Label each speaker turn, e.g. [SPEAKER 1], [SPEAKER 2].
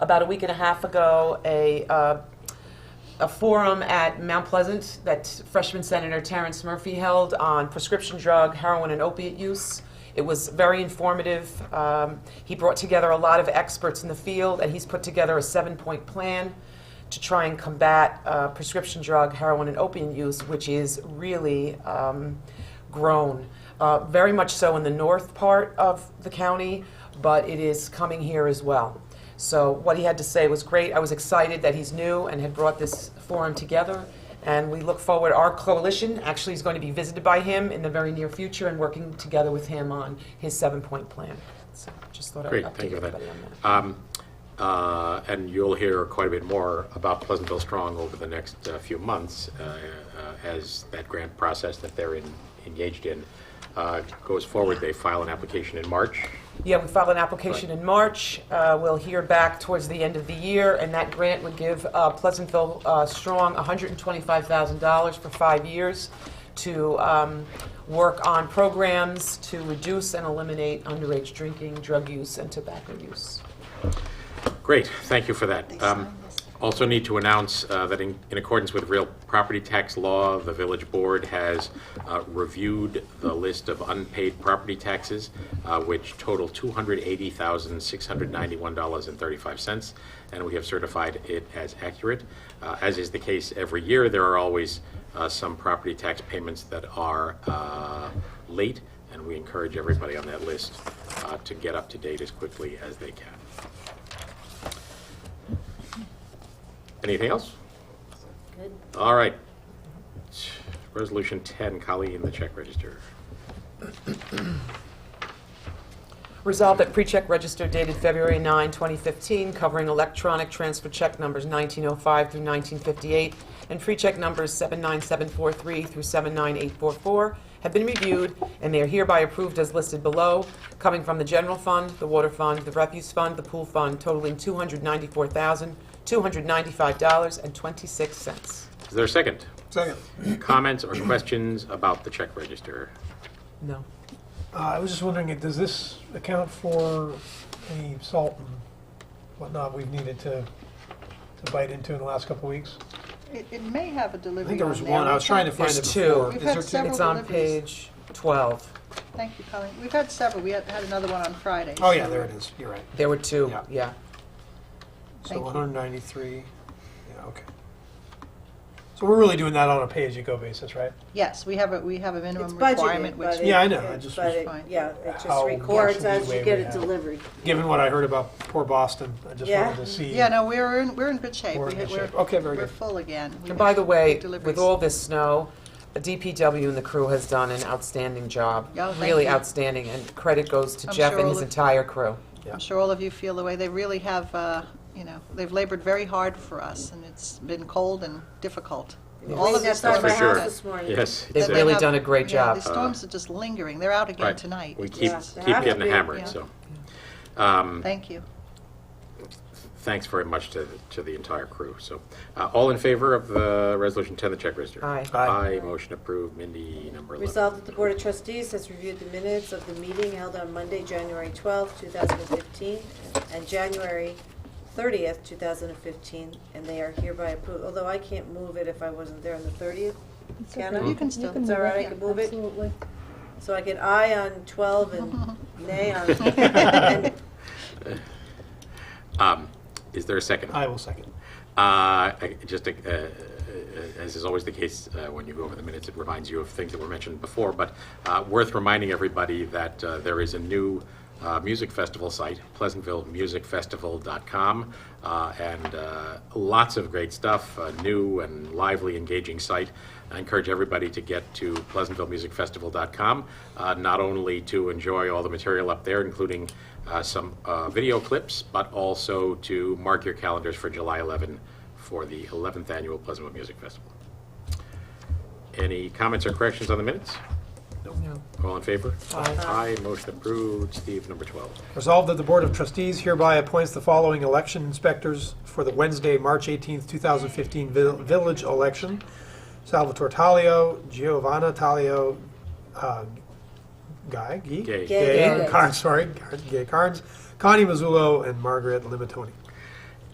[SPEAKER 1] about a week and a half ago a, uh, a forum at Mount Pleasant that freshman Senator Terrence Murphy held on prescription drug, heroin, and opiate use. It was very informative. Um, he brought together a lot of experts in the field, and he's put together a seven point plan to try and combat uh, prescription drug, heroin, and opiate use, which is really um, grown. Uh, very much so in the north part of the county, but it is coming here as well. So what he had to say was great. I was excited that he's new and had brought this forum together. And we look forward, our coalition actually is going to be visited by him in the very near future and working together with him on his seven-point plan. So just thought I'd
[SPEAKER 2] Great,
[SPEAKER 1] update
[SPEAKER 2] thank you for that.
[SPEAKER 1] everybody on that.
[SPEAKER 2] Um, uh, And you'll hear quite a bit more about Pleasantville Strong over the next uh, few months uh, uh, as that grant process that they're in- engaged in uh, goes forward. They file an application in March.
[SPEAKER 1] Yeah, we filed an application in March. Uh, We'll hear back towards the end of the year, and that grant would give uh, Pleasantville uh, Strong $125,000 for five years to um, work on programs to reduce and eliminate underage drinking, drug use, and tobacco use.
[SPEAKER 2] Great, thank you for that. Um, Also need to announce uh, that in in accordance with real property tax law, the Village Board has uh, reviewed the list of unpaid property taxes, uh, which total $280,691.35, and we have certified it as accurate. Uh, As is the case every year, there are always uh, some property tax payments that are uh, late, and we encourage everybody on that list uh, to get up to date as quickly as they can. Anything else? Good. All right. Resolution 10, Colleen, the check register.
[SPEAKER 1] Resolved that pre-check register dated February 9, 2015, covering electronic transfer check numbers 1905 through 1958 and pre-check numbers 79743 through 79844 have been reviewed and they are hereby approved as listed below, coming from the general fund, the water fund, the refuse fund, the pool fund, totaling $294,295.26.
[SPEAKER 2] Is there a second?
[SPEAKER 3] Second.
[SPEAKER 2] Comments or questions about the check register?
[SPEAKER 1] No.
[SPEAKER 3] Uh, I was just wondering, does this account for any salt and whatnot we've needed to, to bite into in the last couple of weeks?
[SPEAKER 4] It, it may have a delivery
[SPEAKER 5] I think there was
[SPEAKER 4] on there.
[SPEAKER 5] one, I was trying to find
[SPEAKER 1] There's
[SPEAKER 5] it
[SPEAKER 1] two.
[SPEAKER 5] before.
[SPEAKER 4] We've
[SPEAKER 5] Is
[SPEAKER 4] had
[SPEAKER 5] there two?
[SPEAKER 4] several-
[SPEAKER 1] It's on
[SPEAKER 4] deliveries.
[SPEAKER 1] page 12.
[SPEAKER 4] Thank you, Colleen. We've had several. We had, had another one on Friday.
[SPEAKER 5] Oh, yeah, there it is, you're right.
[SPEAKER 1] There were two,
[SPEAKER 5] Yeah.
[SPEAKER 1] yeah.
[SPEAKER 5] So
[SPEAKER 4] Thank you.
[SPEAKER 5] 193, yeah, okay.
[SPEAKER 3] So we're really doing that on a pay-as-you-go basis, right?
[SPEAKER 4] Yes, we have a, we have a
[SPEAKER 6] It's
[SPEAKER 4] minimum
[SPEAKER 6] budgeted,
[SPEAKER 4] requirement,
[SPEAKER 6] but
[SPEAKER 4] which,
[SPEAKER 6] it.
[SPEAKER 5] Yeah, I know, I just
[SPEAKER 6] But
[SPEAKER 5] was-
[SPEAKER 6] it, yeah, it
[SPEAKER 3] How
[SPEAKER 6] just records
[SPEAKER 3] much
[SPEAKER 6] as
[SPEAKER 3] leeway
[SPEAKER 6] you
[SPEAKER 3] we
[SPEAKER 6] get it
[SPEAKER 3] have.
[SPEAKER 6] delivered.
[SPEAKER 5] Given what I heard about poor Boston, I just
[SPEAKER 6] Yeah.
[SPEAKER 5] wanted to see.
[SPEAKER 4] yeah, no, we're in, we're in good shape.
[SPEAKER 5] We're in
[SPEAKER 4] We had-
[SPEAKER 5] good shape. Okay, very
[SPEAKER 4] We're
[SPEAKER 5] good.
[SPEAKER 4] full again. We
[SPEAKER 1] And by the way, with
[SPEAKER 4] deliveries.
[SPEAKER 1] all this snow, the DPW and the crew has done an outstanding job.
[SPEAKER 4] Yeah, Oh, thank
[SPEAKER 1] Really
[SPEAKER 4] you.
[SPEAKER 1] outstanding, and credit goes to
[SPEAKER 4] I'm
[SPEAKER 1] Jeff
[SPEAKER 4] sure
[SPEAKER 1] and
[SPEAKER 4] all
[SPEAKER 1] his
[SPEAKER 4] of-
[SPEAKER 1] entire crew.
[SPEAKER 5] Yeah.
[SPEAKER 4] I'm sure all of you feel the way. They really have, uh, you know, they've labored very hard for us, and it's been cold and difficult. All of
[SPEAKER 6] Cleaned
[SPEAKER 4] these
[SPEAKER 6] outside
[SPEAKER 4] storms.
[SPEAKER 2] for
[SPEAKER 6] my
[SPEAKER 2] sure.
[SPEAKER 6] house this morning.
[SPEAKER 2] Yes.
[SPEAKER 1] They've
[SPEAKER 2] it's a-
[SPEAKER 4] that they
[SPEAKER 1] really
[SPEAKER 4] have-
[SPEAKER 1] done a great
[SPEAKER 4] yeah,
[SPEAKER 1] job.
[SPEAKER 4] The storms are just lingering. They're out again
[SPEAKER 2] Right.
[SPEAKER 4] tonight.
[SPEAKER 2] We
[SPEAKER 4] It's
[SPEAKER 2] keep,
[SPEAKER 4] just-
[SPEAKER 6] Yeah.
[SPEAKER 2] keep getting
[SPEAKER 6] Yeah.
[SPEAKER 2] hammered, so. Um,
[SPEAKER 4] Thank you.
[SPEAKER 2] Thanks very much to, to the entire crew, so. uh, All in favor of the Resolution 10, the check register?
[SPEAKER 1] Aye.
[SPEAKER 5] Aye.
[SPEAKER 2] Aye, motion approved. Mindy, number 11.
[SPEAKER 6] Resolved that the Board of Trustees has reviewed the minutes of the meeting held on Monday, January twelfth, two 2015, and January thirtieth, two 2015, and they are hereby approved, although I can't move it if I wasn't there on the thirtieth. Can I?
[SPEAKER 4] You can still-
[SPEAKER 6] It's all right, I can move it? So I get aye on 12 and nay on, and
[SPEAKER 2] Um, Is there a second?
[SPEAKER 5] I will second.
[SPEAKER 2] Uh, I- Just, uh, uh, as is always the case, uh, when you go over the minutes, it reminds you of things that were mentioned before, but uh, worth reminding everybody that uh, there is a new uh, music festival site, pleasantvillemusicfestival.com, uh, and uh, lots of great stuff, Uh, a new and lively, engaging site. I encourage everybody to get to pleasantvillemusicfestival.com, uh, not only to enjoy all the material up there, including uh, some uh, video clips, but also to mark your calendars for July 11 for the 11th Annual Pleasantville Music Festival. Any comments or corrections on the minutes?
[SPEAKER 1] No.
[SPEAKER 2] All in favor? Aye. motion approved. Steve, number 12.
[SPEAKER 5] Resolved that the Board of Trustees hereby appoints the following election inspectors for the Wednesday, March 18th, 2015 vil- village election. Salvatore Taglio, Giovanna Taglio, uh, Guy, Gee?
[SPEAKER 2] Gay.
[SPEAKER 6] Gay.
[SPEAKER 5] Carnes, sorry, Gay Carnes, Connie Mazzullo, and Margaret Limatoni.